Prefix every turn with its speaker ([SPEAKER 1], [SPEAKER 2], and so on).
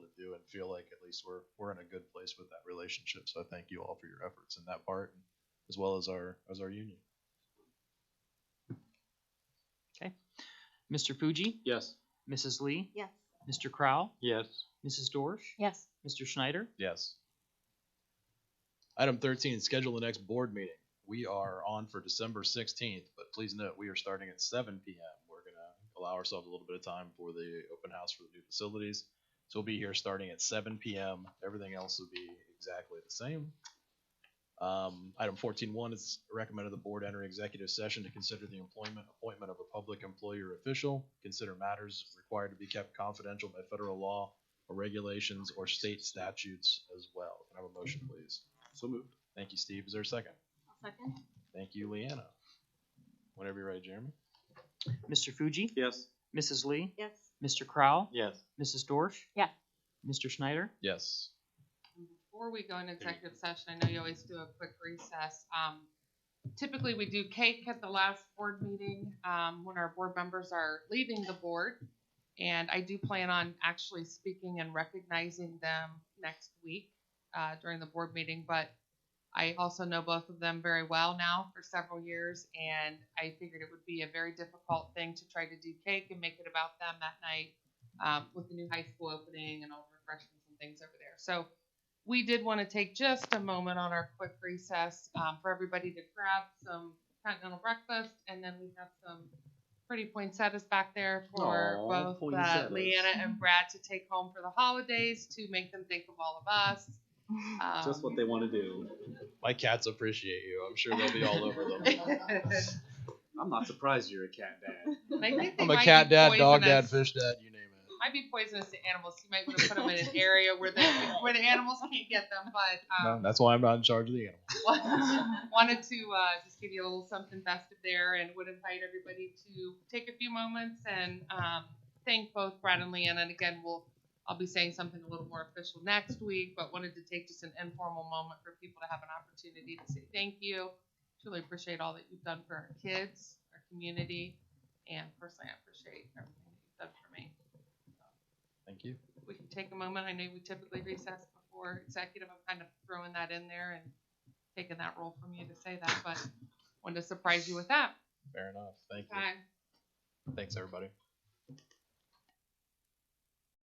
[SPEAKER 1] feel like at least we're we're in a good place with that relationship. So I thank you all for your efforts in that part, as well as our as our union.
[SPEAKER 2] Mr. Fuji,
[SPEAKER 3] Yes.
[SPEAKER 2] Mrs. Lee,
[SPEAKER 4] Yes.
[SPEAKER 2] Mr. Crow,
[SPEAKER 3] Yes.
[SPEAKER 2] Mrs. Dorsch,
[SPEAKER 4] Yes.
[SPEAKER 2] Mr. Schneider.
[SPEAKER 1] Yes. Item thirteen, schedule the next board meeting. We are on for December sixteenth, but please note, we are starting at seven P M. We're gonna allow ourselves a little bit of time for the open house for the new facilities. So we'll be here starting at seven P M. Everything else will be exactly the same. Um, item fourteen one is recommended the board enter executive session to consider the employment, appointment of a public employer official, consider matters required to be kept confidential by federal law or regulations or state statutes as well. Can I have a motion, please?
[SPEAKER 3] So moved.
[SPEAKER 1] Thank you, Steve. Is there a second?
[SPEAKER 4] Second?
[SPEAKER 1] Thank you, Leanna. Whenever you're ready, Jeremy.
[SPEAKER 2] Mr. Fuji,
[SPEAKER 3] Yes.
[SPEAKER 2] Mrs. Lee,
[SPEAKER 4] Yes.
[SPEAKER 2] Mr. Crow,
[SPEAKER 3] Yes.
[SPEAKER 2] Mrs. Dorsch.
[SPEAKER 4] Yeah.
[SPEAKER 2] Mr. Schneider.
[SPEAKER 1] Yes.
[SPEAKER 5] Before we go into executive session, I know you always do a quick recess. Um, typically, we do cake at the last board meeting, um, when our board members are leaving the board. And I do plan on actually speaking and recognizing them next week, uh, during the board meeting, but I also know both of them very well now for several years, and I figured it would be a very difficult thing to try to do cake and make it about them that night, um, with the new high school opening and all the refreshments and things over there. So we did want to take just a moment on our quick recess um, for everybody to grab some continental breakfast, and then we have some pretty poinsettias back there for
[SPEAKER 3] Aw,
[SPEAKER 5] both uh,
[SPEAKER 3] poinsettias.
[SPEAKER 5] Leanna and Brad to take home for the holidays to make them think of all of us. Um,
[SPEAKER 3] Just what they want to do.
[SPEAKER 1] My cats appreciate you. I'm sure they'll be all over them.
[SPEAKER 3] I'm not surprised you're a cat dad.
[SPEAKER 5] And I think they
[SPEAKER 1] I'm a
[SPEAKER 5] might
[SPEAKER 1] cat
[SPEAKER 5] be
[SPEAKER 1] dad, dog dad,
[SPEAKER 5] poisonous-
[SPEAKER 1] fish dad, you name it.
[SPEAKER 5] Might be poisonous to animals. You might want to put them in an area where the where the animals can't get them. But
[SPEAKER 1] No,
[SPEAKER 5] um,
[SPEAKER 1] that's why I'm not in charge of the animal.
[SPEAKER 5] wanted to uh, just give you a little something festive there, and would invite everybody to take a few moments and um, thank both Brad and Leanne. And again, we'll I'll be saying something a little more official next week, but wanted to take just an informal moment for people to have an opportunity to say thank you. Truly appreciate all that you've done for our kids, our community, and personally, I appreciate everything that you've done for me.
[SPEAKER 1] Thank you.
[SPEAKER 5] We can take a moment. I know we typically recess before executive. I'm kind of throwing that in there and taking that role from you to say that, but wanted to surprise you with that.
[SPEAKER 1] Fair enough. Thank you.
[SPEAKER 5] Okay.
[SPEAKER 1] Thanks, everybody.